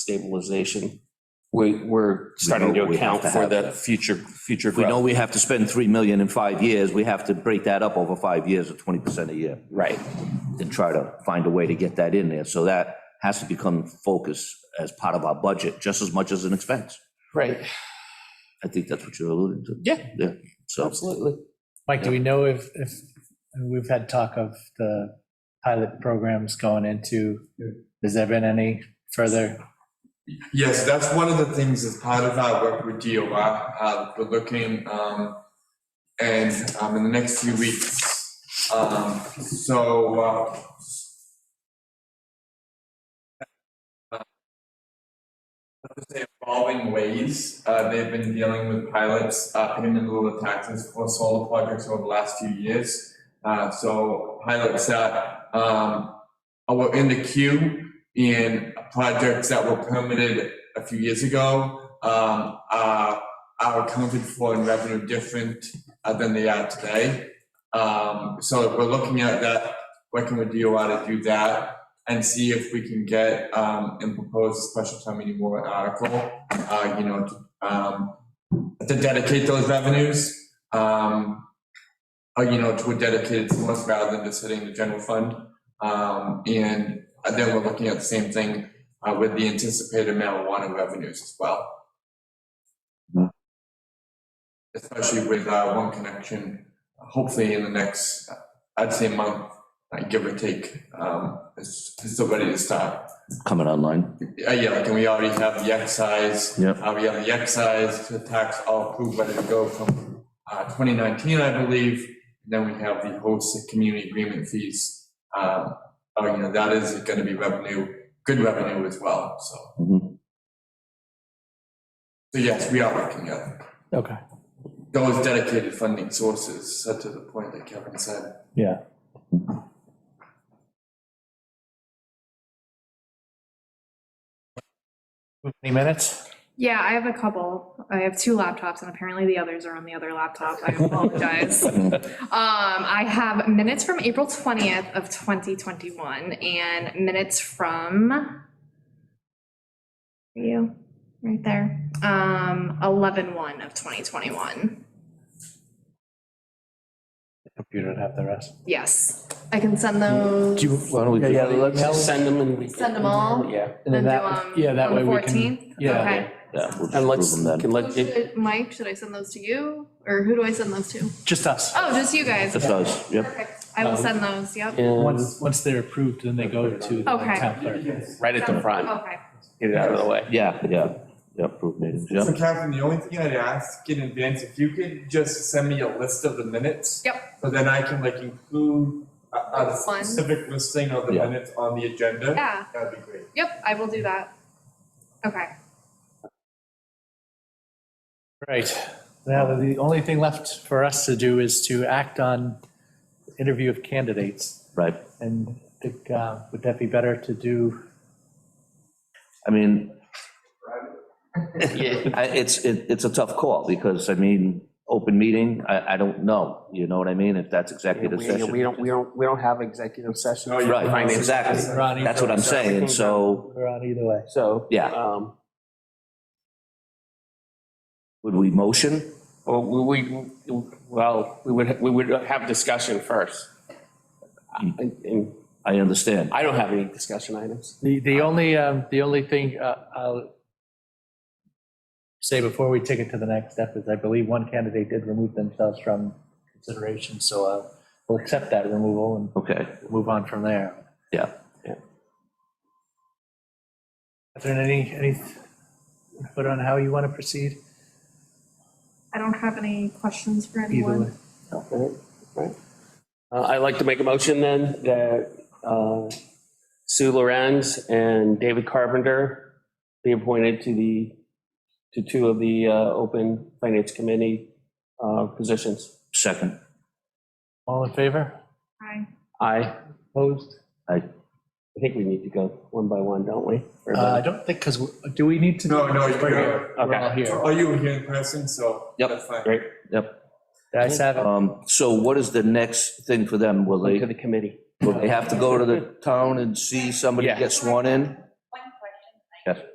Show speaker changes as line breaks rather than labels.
stabilization. We, we're starting to
We have
account
to
for
have
the
that.
future, future
We know
growth.
we have to spend 3 million in five years, we have to break that up over five years at 20% a year
Right,
and try to find a way to get that in there. So that has to become focus as part of our budget, just as much as an expense.
right,
I think that's what you're alluding to.
yeah,
Yeah, so
absolutely.
Mike, do we know if, if, we've had talk of the pilot programs going into, has there been any further?
Yes, that's one of the things as part of our work with DOR, uh, we're looking, um, and, um, in the next few weeks. Um, so, uh, uh, let's say evolving ways, uh, they've been dealing with pilots, uh, paying in lieu of taxes for solar projects over the last few years. Uh, so pilots that, um, were in the queue, in projects that were permitted a few years ago um, are, are accounted for in revenue different uh, than they are today. Um, so we're looking at that, working with DOR to do that and see if we can get um, and propose a special town meeting warrant article, uh, you know, to, um, to dedicate those revenues, um, uh, you know, to a dedicated source rather than just hitting the general fund. Um, and and then we're looking at the same thing uh, with the anticipated marijuana revenues as well.
Hmm.
Especially with uh, One Connection, hopefully in the next, uh, I'd say month, uh, give or take, um, it's it's still ready to start.
coming online.
Uh, Yeah, like, and we already have the excise.
Yep.
uh, We have the excise to tax all approved, ready to go from uh, 2019, I believe. And Then we have the host and community agreement fees. Um, Oh, you know, that is going to be revenue, good revenue as well, so.
Mhm.
So yes, we are looking at
Okay.
those dedicated funding sources, uh, to the point that Kevin said.
Yeah. Any minutes?
Yeah, I have a couple. I have two laptops and apparently the others are on the other laptop. I apologize. Um, I have minutes from April 20th of 2021 and minutes from you, right there, um, 11/1 of 2021.
Computer would have the rest.
Yes, I can send those.
why don't we? Yeah, let me,
Send them and we.
Send them all?
Yeah,
and then
do
that,
them
yeah, that
on the
way we can.
14th?
yeah.
Okay.
Yeah, we'll
and
just
let's,
prove them
can
then.
let,
Should
it-
I- Mike, should I send those to you or who do I send those to?
Just us.
Oh, just you guys.
That's us, yep.
Perfect. I will
Um,
send those, yep.
and
Once, once they're approved, then they go to the
Okay.
town clerk.
right at the front,
Okay.
get it out of the way.
Yeah, yeah, yeah, approved meetings, yeah.
So Catherine, the only thing I'd ask in advance, if you could just send me a list of the minutes.
Yep.
So then I can like include a, a
One.
specific listing of the
Yeah.
minutes on the agenda.
Yeah,
That'd be great.
yep, I will do that. Okay.
Right. Now, the only thing left for us to do is to act on interview of candidates.
Right.
And I think, uh, would that be better to do?
I mean, I- it's, it- it's a tough call because, I mean, open meeting, I, I don't know. You know what I mean? If that's
We
executive
we
session.
don't, we don't, we don't have executive session.
No, you-
Right,
Finance.
exactly.
We're on
That's
either,
what I'm
So I
saying.
think
So
we're on either way.
So.
Yeah.
Um,
would we motion?
well, we, we- well, we would, we would have discussion first. I- And
I understand.
I don't have any discussion items.
The, the only, um, the only thing uh, I'll say before we take it to the next step is I believe one candidate did remove themselves from consideration, so uh, we'll accept that removal and
Okay,
move on from there.
yeah.
Catherine, any, any input on how you want to proceed?
I don't have any questions for
Either way.
anyone.
Right, right. Uh, I'd like to make a motion then that uh, Sue Lorenz and David Carpenter be appointed to the, to two of the uh, open finance committee uh, positions.
Second,
All in favor?
Hi.
Aye. I
Opposed?
think we need to go one by one, don't we? Or-
Uh, I don't think, because, do we need to?
No, no, you
We're here. We're all
Okay.
here.
Oh, you were here in person, so.
Yep.
That's fine.
Great.
I have it.
um, so what is the next thing for them? Will
Go To
they,
the committee.
will they have to go to the town and see somebody
Yeah.
get sworn in?
One question.
Yes.